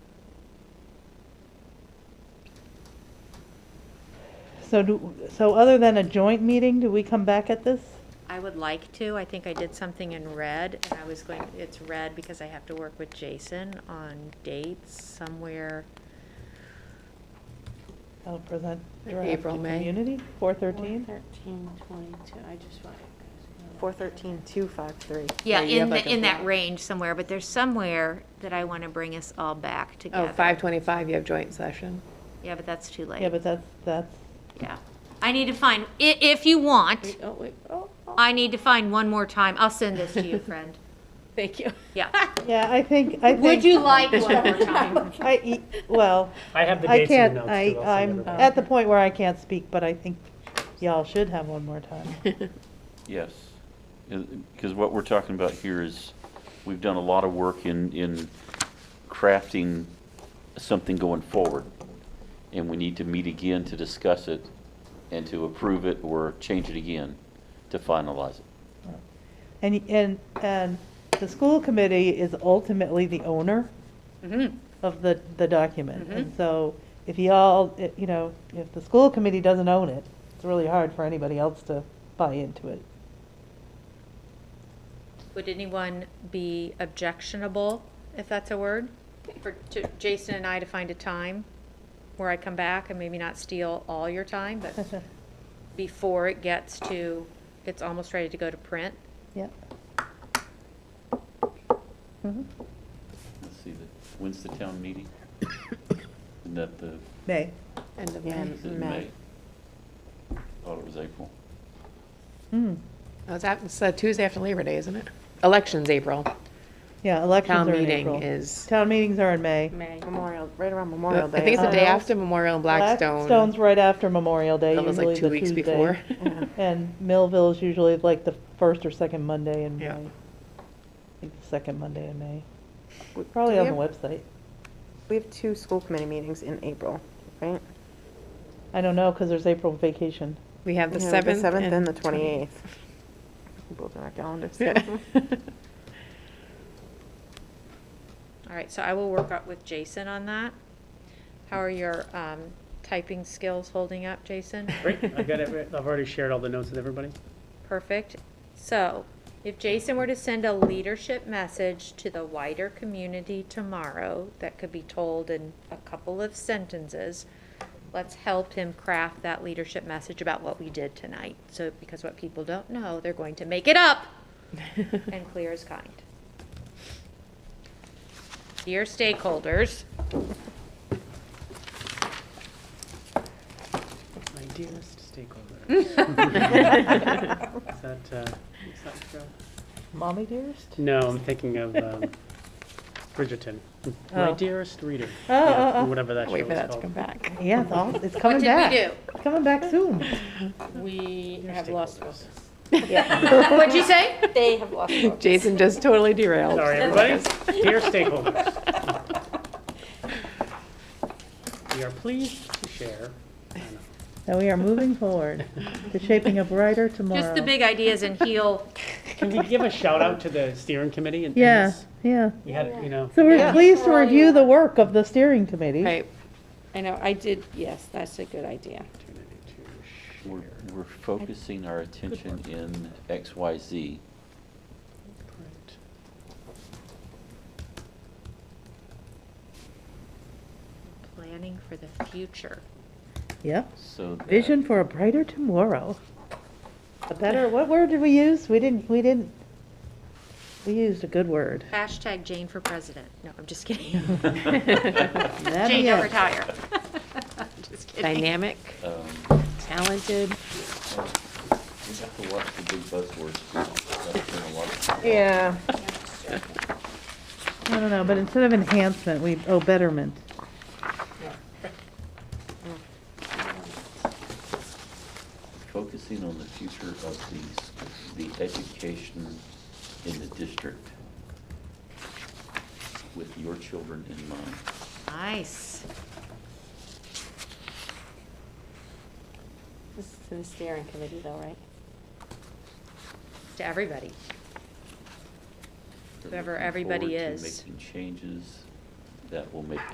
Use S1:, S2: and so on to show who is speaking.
S1: So do, so other than a joint meeting, do we come back at this?
S2: I would like to, I think I did something in red, and I was going, it's red because I have to work with Jason on dates somewhere.
S1: I'll present
S3: Like
S1: draft to
S3: April, May.
S1: community, four thirteen?
S3: Thirteen twenty-two, I just want.
S4: Four thirteen, two five three.
S2: Yeah,
S3: Yeah, you have
S2: in,
S3: like
S2: the-
S3: a
S2: in that
S3: block.
S2: range somewhere, but there's somewhere that I want to bring us all back
S3: Oh,
S2: together.
S3: five twenty-five, you have joint session.
S2: Yeah, but that's too late.
S1: Yeah, but that's, that's,
S2: Yeah. I need to find, i- if you want,
S3: Oh, wait, oh, oh,
S2: I need to find one more time. I'll send this to you, friend.
S3: thank you.
S2: Yeah.
S1: yeah, I think, I think.
S2: Would you like one more time?
S1: I, e- well,
S5: I have the
S1: I
S5: dates in
S1: can't,
S5: the notes.
S1: I,
S5: too, I'll send
S1: I'm
S5: everybody.
S1: at the point where I can't speak, but I think y'all should have one more time.
S6: Yes, because what we're talking about here is, we've done a lot of work in, in crafting something going forward. And we need to meet again to discuss it and to approve it or change it again to finalize it.
S1: And, y- and, and the school committee is ultimately the owner
S3: Mm-hmm.
S2: Mhm.
S1: of the, the document. And
S2: Mhm.
S1: so if y'all, i- you know, if the school committee doesn't own it, it's really hard for anybody else to buy into it.
S2: Would anyone be objectionable, if that's a word, for to Jason and I to find a time where I come back and maybe not steal all your time, but before it gets to, it's almost ready to go to print?
S1: Yep.
S3: Mm-hmm.
S6: Let's see, the- when's the town meeting? Isn't that the,
S1: May.
S3: End of
S4: Yeah.
S3: May.
S6: is it
S4: May.
S6: May? Thought it was April.
S1: Hmm.
S3: Oh, It's at- it's uh, Tuesday after Labor Day, isn't it? Election's April.
S1: Yeah, elections
S3: Town
S1: are in
S3: meeting
S1: April.
S3: is-
S1: Town meetings are in May.
S2: May.
S4: Memorial, right around
S3: I
S4: Memorial Day.
S3: think it's the
S1: Uh,
S3: day after Memorial and Blackstone.
S1: Blackstone's right after Memorial Day,
S3: That was like
S1: usually
S3: two
S1: the
S3: weeks
S1: Tuesday.
S3: before.
S1: And Millville's usually like the first or second Monday in May.
S3: Yeah.
S1: I think the Second Monday in May.
S4: W-
S1: Probably
S4: do
S1: on
S4: we
S1: the
S4: have-
S1: website.
S4: We have two school committee meetings in April, right?
S1: I don't know, because there's April vacation.
S3: We have the
S4: Yeah,
S3: seventh.
S4: The seventh and the twenty-eighth. Both on our calendars.
S3: Yeah.
S2: All right, so I will work out with Jason on that. How are your um, typing skills holding up, Jason?
S5: Great, I've got it, I've already shared all the notes with everybody.
S2: Perfect. So, if Jason were to send a leadership message to the wider community tomorrow, that could be told in a couple of sentences, let's help him craft that leadership message about what we did tonight. So, because what people don't know, they're going to make it up and clear as kind. Dear stakeholders,
S5: My dearest stakeholder. Is that, uh, is that Joe?
S1: Mommy dearest?
S5: No, I'm thinking of um, Bridgerton. My
S1: Oh.
S5: dearest reader.
S1: Oh,
S5: Yeah,
S1: oh, oh.
S5: Whatever that show
S3: Wait
S5: is
S3: for that to come
S5: called.
S3: back.
S1: Yeah, it's all, it's
S2: what
S1: coming
S2: did
S1: back.
S2: we do?
S1: It's coming back soon.
S7: We have lost focus.
S2: What'd you say?
S7: They have lost focus.
S3: Jason just totally derailed.
S5: Sorry, everybody. Dear stakeholders. We are pleased to share. I know.
S1: And we are moving forward to shaping a brighter tomorrow.
S2: Just the big ideas and heal
S5: Can we give a shout out to the steering committee? and- and
S1: Yeah,
S5: this?
S1: yeah.
S5: We had, you know,
S1: So we're
S7: Yeah.
S1: pleased to
S7: Well,
S1: review
S7: yeah.
S1: the work of the steering committee.
S3: Right.
S7: I know, I did, yes, that's a good idea.
S5: opportunity to
S6: We're,
S5: share.
S6: we're focusing our attention in X, Y, Z.
S5: Great.
S2: planning for the future.
S1: Yep.
S6: So. that-
S1: Vision for a brighter tomorrow. A better, what word did we use? We didn't, we didn't, we used a good word.
S2: Uh, Hashtag Jane for president. No, I'm just kidding.
S1: That'd
S2: Jane,
S1: be
S2: don't
S1: it.
S2: retire. Just kidding.
S3: Dynamic,
S6: Um,
S3: talented.
S6: We have to watch the big buzzwords. That's been a lot of-
S4: Yeah.
S1: I don't know, but instead of enhancement, we, oh, betterment.
S6: Focusing on the future of the, the education in the district with your children in mind.
S2: Nice.
S7: This is to the steering committee though, right?
S2: To everybody.
S6: They're
S2: Whoever
S6: looking
S2: everybody
S6: forward to
S2: is.
S6: Making changes that will make